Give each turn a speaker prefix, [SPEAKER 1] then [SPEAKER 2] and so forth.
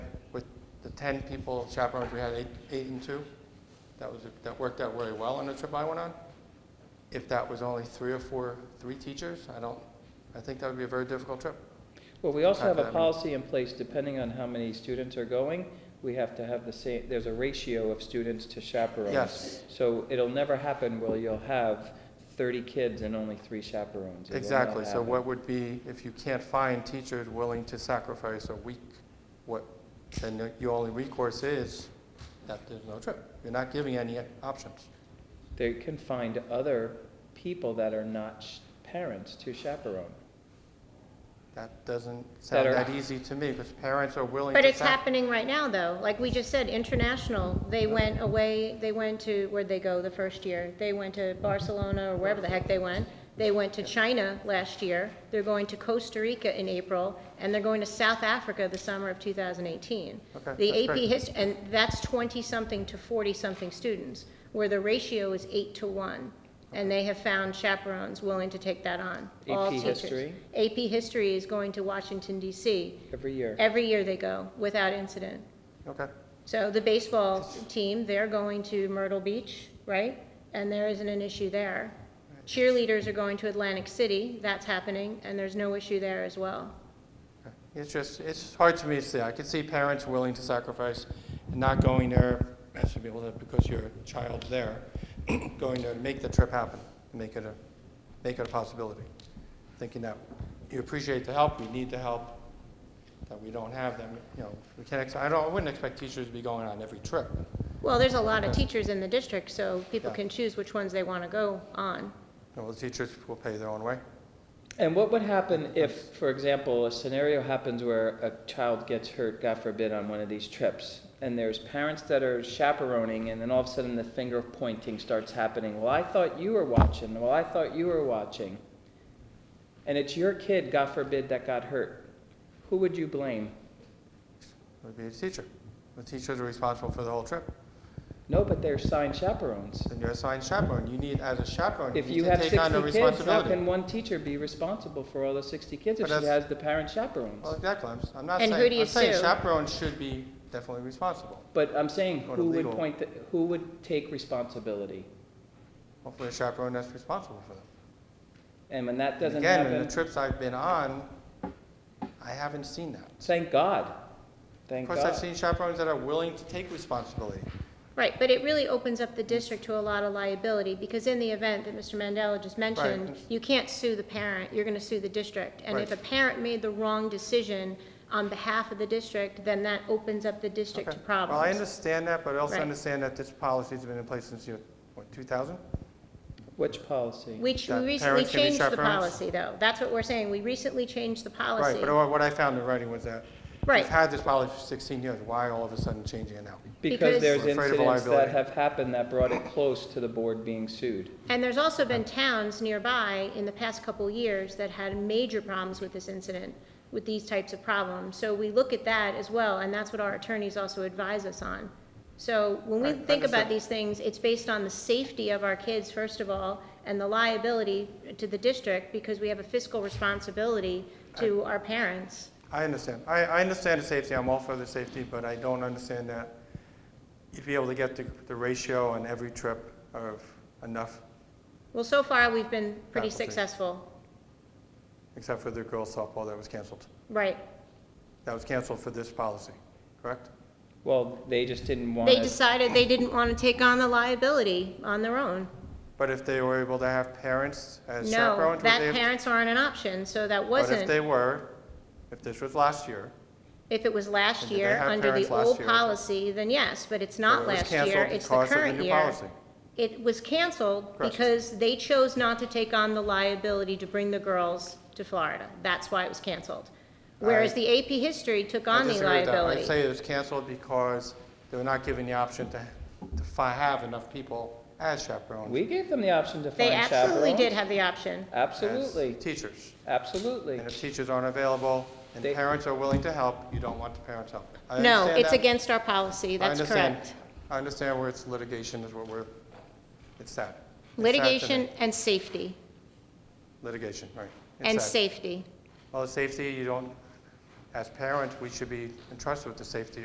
[SPEAKER 1] 10 people chaperones, we had eight, eight and two. That was, that worked out very well on the trip I went on. If that was only three or four, three teachers, I don't, I think that would be a very difficult trip.
[SPEAKER 2] Well, we also have a
[SPEAKER 1] Um,
[SPEAKER 2] policy in place, depending on how many students are going, we have to have the same, there's a ratio of students to chaperones.
[SPEAKER 1] Yes.
[SPEAKER 2] So it'll never happen where you'll have thirty kids and only three chaperones. It will not
[SPEAKER 1] Exactly, so
[SPEAKER 2] happen.
[SPEAKER 1] what would be, if you can't find teachers willing to sacrifice a week, what, then your- your only recourse is that there's no trip. You're not giving any options.
[SPEAKER 2] They can find other people that are not sh- parents to chaperone.
[SPEAKER 1] That doesn't sound
[SPEAKER 2] Better.
[SPEAKER 1] that easy to me, because parents are willing to.
[SPEAKER 3] But it's
[SPEAKER 1] sac-
[SPEAKER 3] happening right now, though. Like we just said, international, they went away, they went to, where'd they go the first year? They went to Barcelona or wherever the heck they went. They went to China last year. They're going to Costa Rica in April, and they're going to South Africa the summer of 2018.
[SPEAKER 1] Okay,
[SPEAKER 3] The
[SPEAKER 1] that's
[SPEAKER 3] AP
[SPEAKER 1] great.
[SPEAKER 3] history, and that's 20-something to 40-something students, where the ratio is eight to one. And they have found chaperones willing to take that on, all
[SPEAKER 2] AP
[SPEAKER 3] teachers.
[SPEAKER 2] history?
[SPEAKER 3] AP history is going to Washington DC
[SPEAKER 2] Every year.
[SPEAKER 3] Every year they go, without incident.
[SPEAKER 1] Okay,
[SPEAKER 3] So the baseball team, they're going to Myrtle Beach, right? And there isn't an issue there. Cheerleaders are going to Atlantic City, that's happening, and there's no issue there as well.
[SPEAKER 1] okay. it's just, it's hard to me to say. I could see parents willing to sacrifice, and not going there, I should be able to, because your child's there, going there to make the trip happen, make it a, make it a possibility. Thinking that you appreciate the help, we need the help, that we don't have them, you know, we can't, ex- I don't, I wouldn't expect teachers to be going on every trip.
[SPEAKER 3] Well, there's a lot of teachers in the district, so people
[SPEAKER 1] Yeah.
[SPEAKER 3] can choose which ones they want to go on.
[SPEAKER 1] You know, the teachers will pay their own way.
[SPEAKER 2] And what would happen if, for example, a scenario happens where a child gets hurt, God forbid, on one of these trips, and there's parents that are chaperoning, and then all of a sudden the finger pointing starts happening. Well, I thought you were watching. Well, I thought you were watching. And it's your kid, God forbid, that got hurt. Who would you blame?
[SPEAKER 1] It would be the teacher. The teachers are responsible for the whole trip.
[SPEAKER 2] No, but they're assigned chaperones.
[SPEAKER 1] Then you're assigned chaperone. You need, as a chaperone,
[SPEAKER 2] If
[SPEAKER 1] you
[SPEAKER 2] you
[SPEAKER 1] need to
[SPEAKER 2] have
[SPEAKER 1] take on the
[SPEAKER 2] sixty kids, how can
[SPEAKER 1] responsibility.
[SPEAKER 2] one teacher be responsible for all the sixty kids if
[SPEAKER 1] But
[SPEAKER 2] she
[SPEAKER 1] that's-
[SPEAKER 2] has the parent chaperones?
[SPEAKER 1] Well, exactly. I'm, s- I'm not
[SPEAKER 3] And who do
[SPEAKER 1] saying,
[SPEAKER 3] you
[SPEAKER 1] I'm saying
[SPEAKER 3] sue?
[SPEAKER 1] chaperones should be definitely responsible.
[SPEAKER 2] But I'm saying,
[SPEAKER 1] Go to
[SPEAKER 2] who would
[SPEAKER 1] legal.
[SPEAKER 2] point, the- who would take responsibility?
[SPEAKER 1] Hopefully a chaperone that's responsible for them.
[SPEAKER 2] And when that
[SPEAKER 1] And
[SPEAKER 2] doesn't
[SPEAKER 1] Again, in
[SPEAKER 2] happen,
[SPEAKER 1] the trips I've been on, I haven't seen that.
[SPEAKER 2] thank God.
[SPEAKER 1] Of
[SPEAKER 2] Thank
[SPEAKER 1] course, I've
[SPEAKER 2] God.
[SPEAKER 1] seen chaperones that are willing to take responsibility.
[SPEAKER 3] Right, but it really opens up the district to a lot of liability, because in the event that Mr. Mandela just mentioned,
[SPEAKER 1] Right.
[SPEAKER 3] you can't sue the parent, you're gonna sue the district. And if a
[SPEAKER 1] Right.
[SPEAKER 3] parent made the wrong decision on behalf of the district, then that opens up the district to
[SPEAKER 1] Okay. Well, I
[SPEAKER 3] problems.
[SPEAKER 1] understand that, but I also
[SPEAKER 3] Right.
[SPEAKER 1] understand that this policy's been in place since, you know, what, 2000?
[SPEAKER 2] Which policy?
[SPEAKER 3] Which, we
[SPEAKER 1] that
[SPEAKER 3] recently
[SPEAKER 1] parents can be
[SPEAKER 3] changed the
[SPEAKER 1] chaperones?
[SPEAKER 3] policy, though, that's what we're saying, we recently changed the
[SPEAKER 1] Right,
[SPEAKER 3] policy.
[SPEAKER 1] but what what I found in writing was that
[SPEAKER 3] Right.
[SPEAKER 1] we've had this policy for 16 years. Why all of a sudden changing it now?
[SPEAKER 2] Because
[SPEAKER 3] because-
[SPEAKER 2] there's
[SPEAKER 1] We're afraid of
[SPEAKER 2] incidents that
[SPEAKER 1] liability.
[SPEAKER 2] have happened that brought it close to the board being sued.
[SPEAKER 3] And there's also been towns nearby in the past couple years that had major problems with this incident, with these types of problems. So we look at that as well, and that's what our attorneys also advise us on. So when we
[SPEAKER 1] Right,
[SPEAKER 3] think about
[SPEAKER 1] understood.
[SPEAKER 3] these things, it's based on the safety of our kids, first of all, and the liability to the district, because we have a fiscal responsibility to our parents.
[SPEAKER 1] I understand. I, I understand the safety. I'm all for the safety, but I don't understand that you'd be able to get the, the ratio on every trip of enough,
[SPEAKER 3] Well, so far, we've been pretty
[SPEAKER 1] Faculty.
[SPEAKER 3] successful,
[SPEAKER 1] except for the girls softball that was canceled.
[SPEAKER 3] right?
[SPEAKER 1] That was canceled for this policy, correct?
[SPEAKER 2] Well, they just didn't want
[SPEAKER 3] They
[SPEAKER 2] to.
[SPEAKER 3] decided they didn't want to take on the liability on their own.
[SPEAKER 1] But if they were able to have parents as
[SPEAKER 3] No,
[SPEAKER 1] chaperones, would they
[SPEAKER 3] that
[SPEAKER 1] have-
[SPEAKER 3] parents aren't an option, so that
[SPEAKER 1] But if
[SPEAKER 3] wasn't.
[SPEAKER 1] they were, if this was last year,
[SPEAKER 3] If it was last
[SPEAKER 1] Did they
[SPEAKER 3] year,
[SPEAKER 1] have
[SPEAKER 3] under the
[SPEAKER 1] parents last
[SPEAKER 3] old
[SPEAKER 1] year?
[SPEAKER 3] policy, then yes, but it's
[SPEAKER 1] but
[SPEAKER 3] not
[SPEAKER 1] it was
[SPEAKER 3] last year,
[SPEAKER 1] canceled
[SPEAKER 3] it's the
[SPEAKER 1] because of the
[SPEAKER 3] current
[SPEAKER 1] new
[SPEAKER 3] year.
[SPEAKER 1] policy.
[SPEAKER 3] It was canceled
[SPEAKER 1] Correct.
[SPEAKER 3] because they chose not to take on the liability to bring the girls to Florida. That's why it was canceled. Whereas
[SPEAKER 1] I-
[SPEAKER 3] the AP history took
[SPEAKER 1] I
[SPEAKER 3] on the
[SPEAKER 1] disagree with that. I
[SPEAKER 3] liability.
[SPEAKER 1] say it was canceled because they were not given the option to, to fi- have enough people as chaperones.
[SPEAKER 2] We gave them the option to find
[SPEAKER 3] They
[SPEAKER 2] chaperones.
[SPEAKER 3] absolutely did have the option.
[SPEAKER 2] Absolutely,
[SPEAKER 1] As teachers.
[SPEAKER 2] absolutely.
[SPEAKER 1] And if teachers aren't available and
[SPEAKER 2] They-
[SPEAKER 1] parents are willing to help, you don't want the parents helping. I
[SPEAKER 3] No,
[SPEAKER 1] understand
[SPEAKER 3] it's
[SPEAKER 1] that.
[SPEAKER 3] against our policy,
[SPEAKER 1] I
[SPEAKER 3] that's
[SPEAKER 1] understand.
[SPEAKER 3] correct.
[SPEAKER 1] I understand where it's litigation is what we're, it's sad. It's sad to me.
[SPEAKER 3] Litigation and safety,
[SPEAKER 1] Litigation, right. It's
[SPEAKER 3] and
[SPEAKER 1] sad.
[SPEAKER 3] safety.
[SPEAKER 1] Well, the safety, you don't, as parents, we should be entrusted with the safety